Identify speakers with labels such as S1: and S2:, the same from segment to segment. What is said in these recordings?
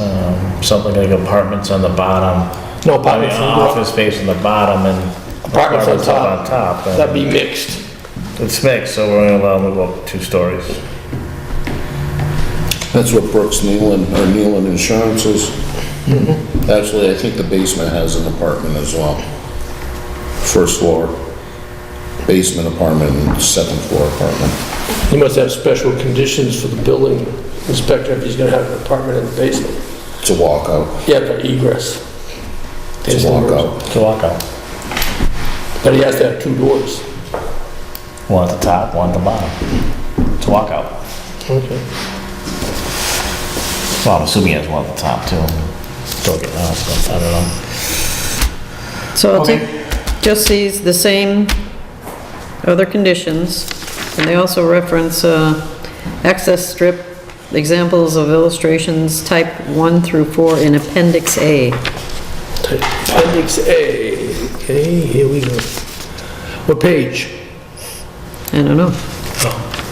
S1: um, something like apartments on the bottom.
S2: No
S1: I mean, uh,
S2: apartments on the bottom.
S1: office space on the bottom and
S2: Apartments on
S1: up
S2: top.
S1: top. and
S2: That'd be mixed.
S1: It's mixed, so we're gonna allow them to go up two stories.
S3: That's what Brooks Nealon, or Nealon Insurance is.
S4: Mm-hmm.
S3: Actually, I think the basement has an apartment as well. First floor, basement apartment, and second floor apartment.
S2: You must have special conditions for the building inspector if he's gonna have an apartment in the basement.
S3: It's a walkout,
S2: Yeah, for egress.
S3: it's a walkout.
S1: To walk out.
S2: But he has to have two doors.
S1: One at the top, one at the bottom. To walk out.
S2: Okay.
S1: Well, I'm assuming he has one at the top too. Still getting out, so I don't know.
S5: So I'll take just these, the same other conditions, and they also reference uh, access strip, examples of illustrations, type 1 through 4 in Appendix A.
S2: Appendix A, okay, here we go. What page?
S5: I don't know.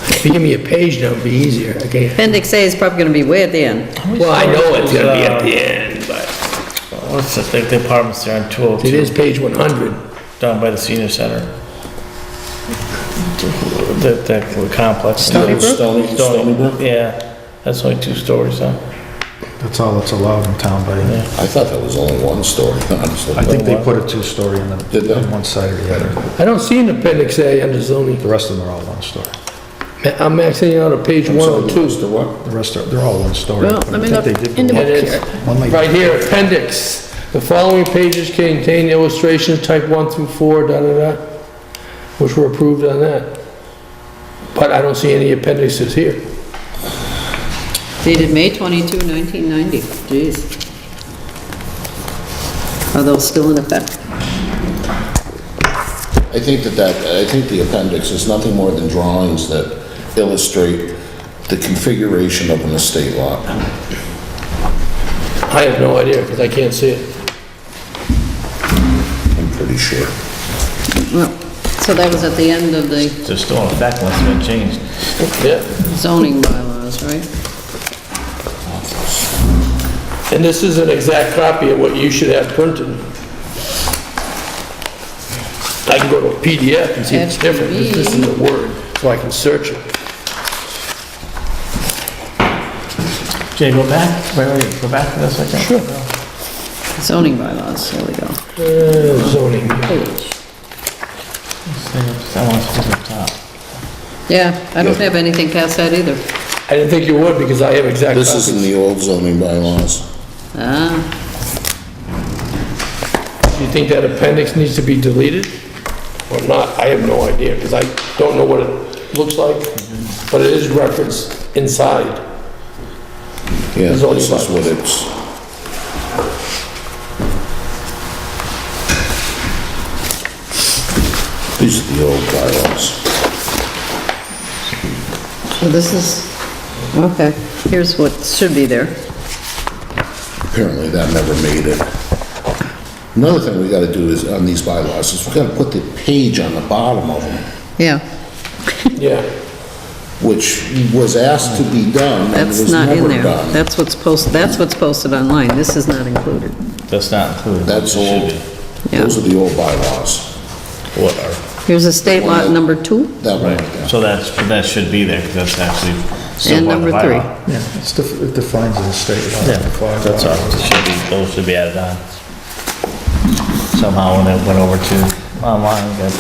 S2: If you give me a page, that would be easier, okay?
S5: Appendix A is probably going to be way at the end.
S2: Well, I know it's gonna be at the end, but
S1: What's the, think the apartments there on two oh
S2: it
S1: two,
S2: is page 100.
S1: down by the senior center? That, that complex.
S3: Stony Brook? Stony- Stony Brook?
S1: Yeah, that's only two stories, huh?
S4: That's all that's allowed in town, buddy.
S3: I thought that was only one story, honestly.
S4: I think they put a two-story in
S3: Did they?
S4: the, on one side or the other.
S2: I don't see an appendix A under zoning.
S4: The rest of them are all one-story.
S2: Ma- I'm maxing out at page
S3: I'm sorry, what
S2: 102.
S3: was the what?
S4: The rest are, they're all one-story.
S5: Well,
S4: but I
S5: let me
S4: think
S5: look
S4: they did
S5: in the
S4: go
S2: It
S5: book
S2: is,
S5: here.
S4: One like-
S2: right here, appendix. The following pages contain illustrations type 1 through 4, da-da-da, which were approved on that. But I don't see any appendixes here.
S5: dated May 22, 1990. Jeez. Are those still in effect?
S3: I think that that, I think the appendix is nothing more than drawings that illustrate the configuration of an estate lot.
S2: I have no idea, because I can't see it.
S3: I'm pretty sure.
S5: No. So that was at the end of the
S1: They're still in effect unless they've been changed.
S2: Yeah,
S5: zoning bylaws, right?
S2: and this is an exact copy of what you should have printed. I can go to a PDF and see it's different, this this is a Word, so I can search it.
S1: Jay, go back, wait, wait, go back to this again. Sure.
S5: Zoning bylaws, there we go.
S2: Uh, Zoning,
S5: Page.
S1: I want to up top.
S5: Yeah, I don't have anything past that either.
S2: I didn't think you would, because I have exact
S3: This is in
S2: copies.
S3: the old zoning bylaws.
S5: Ah,
S2: Do you think that appendix needs to be deleted or not? I have no idea, because I don't know what it looks like, but it is referenced inside.
S3: Yeah,
S2: The zoning
S3: this is what
S2: bylaws.
S3: it's, these are the old bylaws.
S5: so this is, okay, here's what should be there.
S3: Apparently, that never made it. Another thing we gotta do is, on these bylaws, is we gotta put the page on the bottom of them,
S5: Yeah,
S2: Yeah,
S3: which was asked to be done and
S5: that's
S3: was
S5: not in
S3: never
S5: there.
S3: done.
S5: That's what's posted, that's what's posted online. This is not included.
S1: That's not included.
S3: That's
S1: It should
S3: old,
S5: Yeah.
S3: those are the old bylaws.
S1: be. What are,
S5: Here's estate lot number two
S3: That one, right there.
S1: so that's, that should be there, because that's actually still
S5: and
S1: part of the
S5: number three.
S1: bylaw.
S4: Yeah, it's def- it defines an estate lot.
S1: Yeah, that's all, it should be, those should be added on. Somehow when it went over to online, but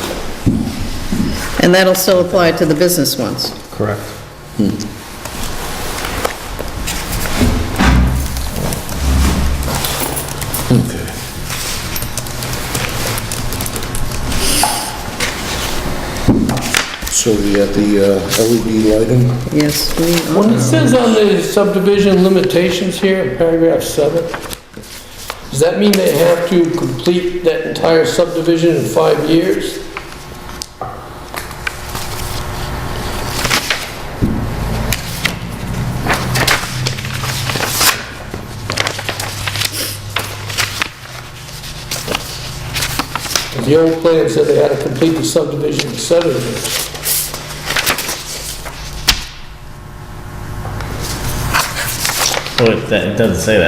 S5: And that'll still apply to the business ones.
S4: Correct.
S3: Okay. So we got the uh, LED lighting,
S5: Yes, we
S2: when it
S5: are.
S2: says on the subdivision limitations here in paragraph seven, does that mean they have to complete that entire subdivision in five years? The old plan said they had to complete the subdivision in seven years.
S1: but oh, it doesn't say that.